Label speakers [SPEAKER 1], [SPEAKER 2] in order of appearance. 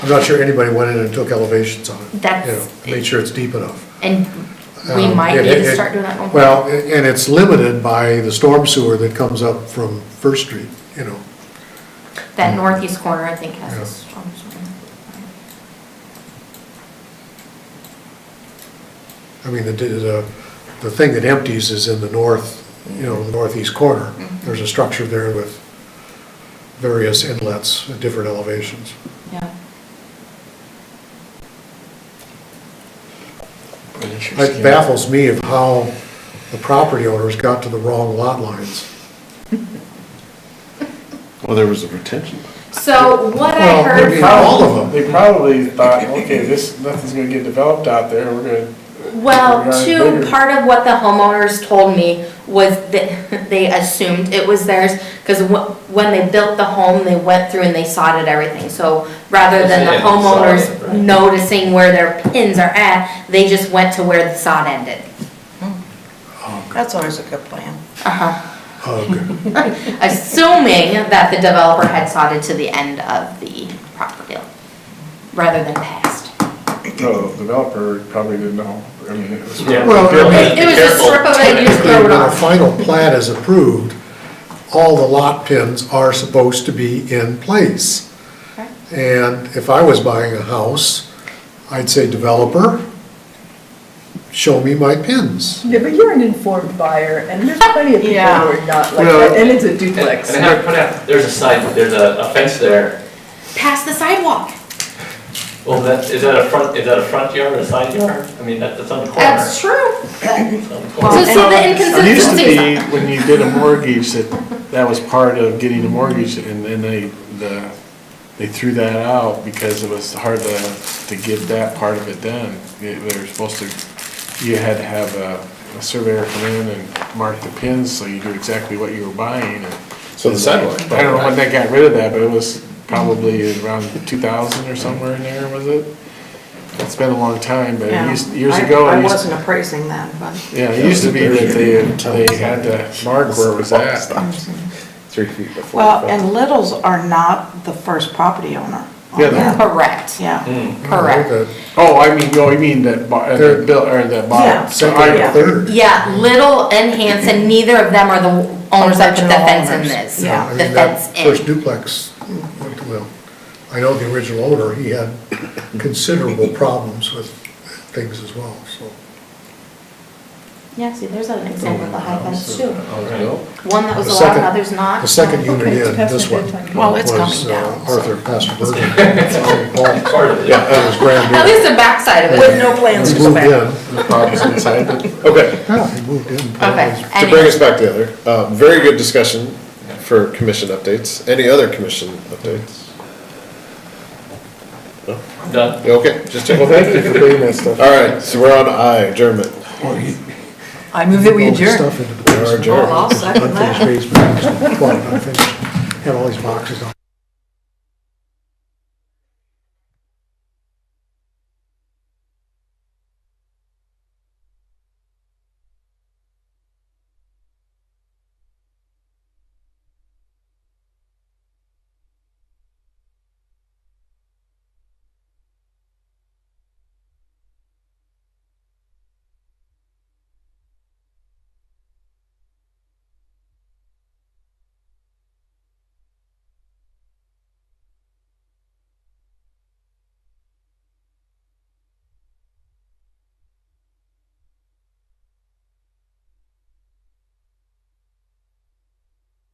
[SPEAKER 1] I'm not sure anybody went in and took elevations on it. You know,
[SPEAKER 2] That's-
[SPEAKER 1] made sure it's deep enough.
[SPEAKER 2] And we
[SPEAKER 1] Um,
[SPEAKER 2] might
[SPEAKER 1] it-
[SPEAKER 2] need to
[SPEAKER 1] it-
[SPEAKER 2] start doing that. more.
[SPEAKER 1] Well, a- and it's limited by the storm sewer that comes up from First Street, you know.
[SPEAKER 2] That northeast corner, I think, has
[SPEAKER 1] Yeah.
[SPEAKER 2] a strong swing.
[SPEAKER 1] I mean, the, the, the thing that empties is in the north, you know, the northeast corner. There's a structure there with various inlets at different elevations.
[SPEAKER 2] Yeah.
[SPEAKER 1] It baffles me of how the property owners got to the wrong lot lines.
[SPEAKER 3] Well, there was a retention.
[SPEAKER 2] So what I
[SPEAKER 1] Well,
[SPEAKER 2] heard
[SPEAKER 1] maybe
[SPEAKER 2] from.
[SPEAKER 1] all of them.
[SPEAKER 4] They probably thought, okay, this, nothing's gonna get developed out there, we're gonna.
[SPEAKER 2] Well,
[SPEAKER 4] we're
[SPEAKER 2] two,
[SPEAKER 4] gonna-
[SPEAKER 2] part of what the homeowners told me was that they assumed it was theirs, because when they built the home, they went through and they sodded everything, so rather than the
[SPEAKER 5] Yeah, they sodded,
[SPEAKER 2] homeowners
[SPEAKER 5] right.
[SPEAKER 2] noticing where their pins are at, they just went to where the sod ended.
[SPEAKER 6] That's always a good plan.
[SPEAKER 1] Ugh.
[SPEAKER 2] Assuming that the developer had sodded to the end of the property, rather than past.
[SPEAKER 4] The developer probably didn't know, I mean, it was.
[SPEAKER 5] Yeah.
[SPEAKER 1] Well, I mean,
[SPEAKER 2] It it was a
[SPEAKER 5] careful.
[SPEAKER 2] strip of it, you just throw it
[SPEAKER 1] When a
[SPEAKER 2] off.
[SPEAKER 1] final plat is approved, all the lot pins are supposed to be in place.
[SPEAKER 2] Okay.
[SPEAKER 1] And if I was buying a house, I'd say developer, show me my pins.
[SPEAKER 7] Yeah, but you're an informed buyer, and there's plenty of people who
[SPEAKER 6] Yeah.
[SPEAKER 7] are not like
[SPEAKER 1] Well-
[SPEAKER 7] that, and it's a
[SPEAKER 5] And and
[SPEAKER 7] duplex.
[SPEAKER 5] I have to point out, there's a sign, there's a a fence there.
[SPEAKER 2] Past the sidewalk.
[SPEAKER 5] Well, Oh, that, is that a front, is that a front yard or a side yard? I mean, that- that's on the corner.
[SPEAKER 2] That's true.
[SPEAKER 5] It's on the
[SPEAKER 2] So
[SPEAKER 5] corner.
[SPEAKER 2] see the
[SPEAKER 4] It used to
[SPEAKER 2] inconsistencies.
[SPEAKER 4] be, when you did a mortgage, that, that was part of getting a mortgage, and then they, the, they threw that out because it was hard to, to get that part of it done. They they were supposed to, you had to have a, a surveyor come in and mark the pins, so you knew exactly what you were buying, and.
[SPEAKER 3] So the sidewalk.
[SPEAKER 4] I don't know when they got rid of that, but it was probably around two thousand or somewhere in there, was it? It's been a long time, but it
[SPEAKER 6] Yeah.
[SPEAKER 4] used- years
[SPEAKER 6] I-
[SPEAKER 4] ago. it
[SPEAKER 6] I
[SPEAKER 4] used-
[SPEAKER 6] wasn't appraising that, but.
[SPEAKER 4] yeah, it used to be that they, they had to mark where it was at.
[SPEAKER 3] Three feet before.
[SPEAKER 6] Well, and Littles are not the first property owner. on
[SPEAKER 4] Yeah,
[SPEAKER 6] that.
[SPEAKER 2] Correct,
[SPEAKER 6] Yeah.
[SPEAKER 5] Hmm.
[SPEAKER 2] correct.
[SPEAKER 4] Oh, I mean, oh, you mean that, bo- uh, the bill, or the
[SPEAKER 6] Yeah.
[SPEAKER 4] bottom. So
[SPEAKER 1] Second
[SPEAKER 4] I,
[SPEAKER 1] or third.
[SPEAKER 2] Yeah, Little and Hanson, neither of them are the owners that put the
[SPEAKER 6] Original
[SPEAKER 2] fence in
[SPEAKER 6] owners.
[SPEAKER 2] this.
[SPEAKER 6] Yeah.
[SPEAKER 1] I
[SPEAKER 2] The
[SPEAKER 1] mean,
[SPEAKER 2] fence
[SPEAKER 1] that first
[SPEAKER 2] in.
[SPEAKER 1] duplex, well, I know the original owner, he had considerable problems with things as well, so.
[SPEAKER 2] Yeah, see, there's an example of a high fence too.
[SPEAKER 5] All right.
[SPEAKER 2] One that was
[SPEAKER 1] The
[SPEAKER 2] allowed
[SPEAKER 1] second-
[SPEAKER 2] and others not.
[SPEAKER 1] The second unit
[SPEAKER 7] Okay,
[SPEAKER 1] in,
[SPEAKER 7] pass
[SPEAKER 1] this
[SPEAKER 7] my
[SPEAKER 1] one.
[SPEAKER 7] bedtime.
[SPEAKER 6] Well, it's
[SPEAKER 1] was,
[SPEAKER 6] coming
[SPEAKER 1] uh,
[SPEAKER 6] down, so.
[SPEAKER 1] Arthur Pastor.
[SPEAKER 5] Part of it.
[SPEAKER 3] Yeah.
[SPEAKER 1] It was grand.
[SPEAKER 2] At least the backside of
[SPEAKER 6] With
[SPEAKER 2] it.
[SPEAKER 6] no plans
[SPEAKER 1] He
[SPEAKER 6] to go
[SPEAKER 1] moved in.
[SPEAKER 6] back.
[SPEAKER 4] the problems inside, but
[SPEAKER 3] Okay,
[SPEAKER 7] Oh.
[SPEAKER 1] Yeah, he moved in.
[SPEAKER 2] Okay.
[SPEAKER 3] to bring us back together, uh, very good discussion for commission updates. Any other commission updates?
[SPEAKER 5] Done.
[SPEAKER 3] Okay, just checking.
[SPEAKER 4] thank you for doing that stuff.
[SPEAKER 3] All right, so we're on I, adjournment.
[SPEAKER 7] I move that we
[SPEAKER 1] All the
[SPEAKER 7] adjourn.
[SPEAKER 1] stuff into the basement.
[SPEAKER 3] Adjourn.
[SPEAKER 6] Well, I'll second that.
[SPEAKER 1] Unfinished basement, unfinished, had all these boxes on.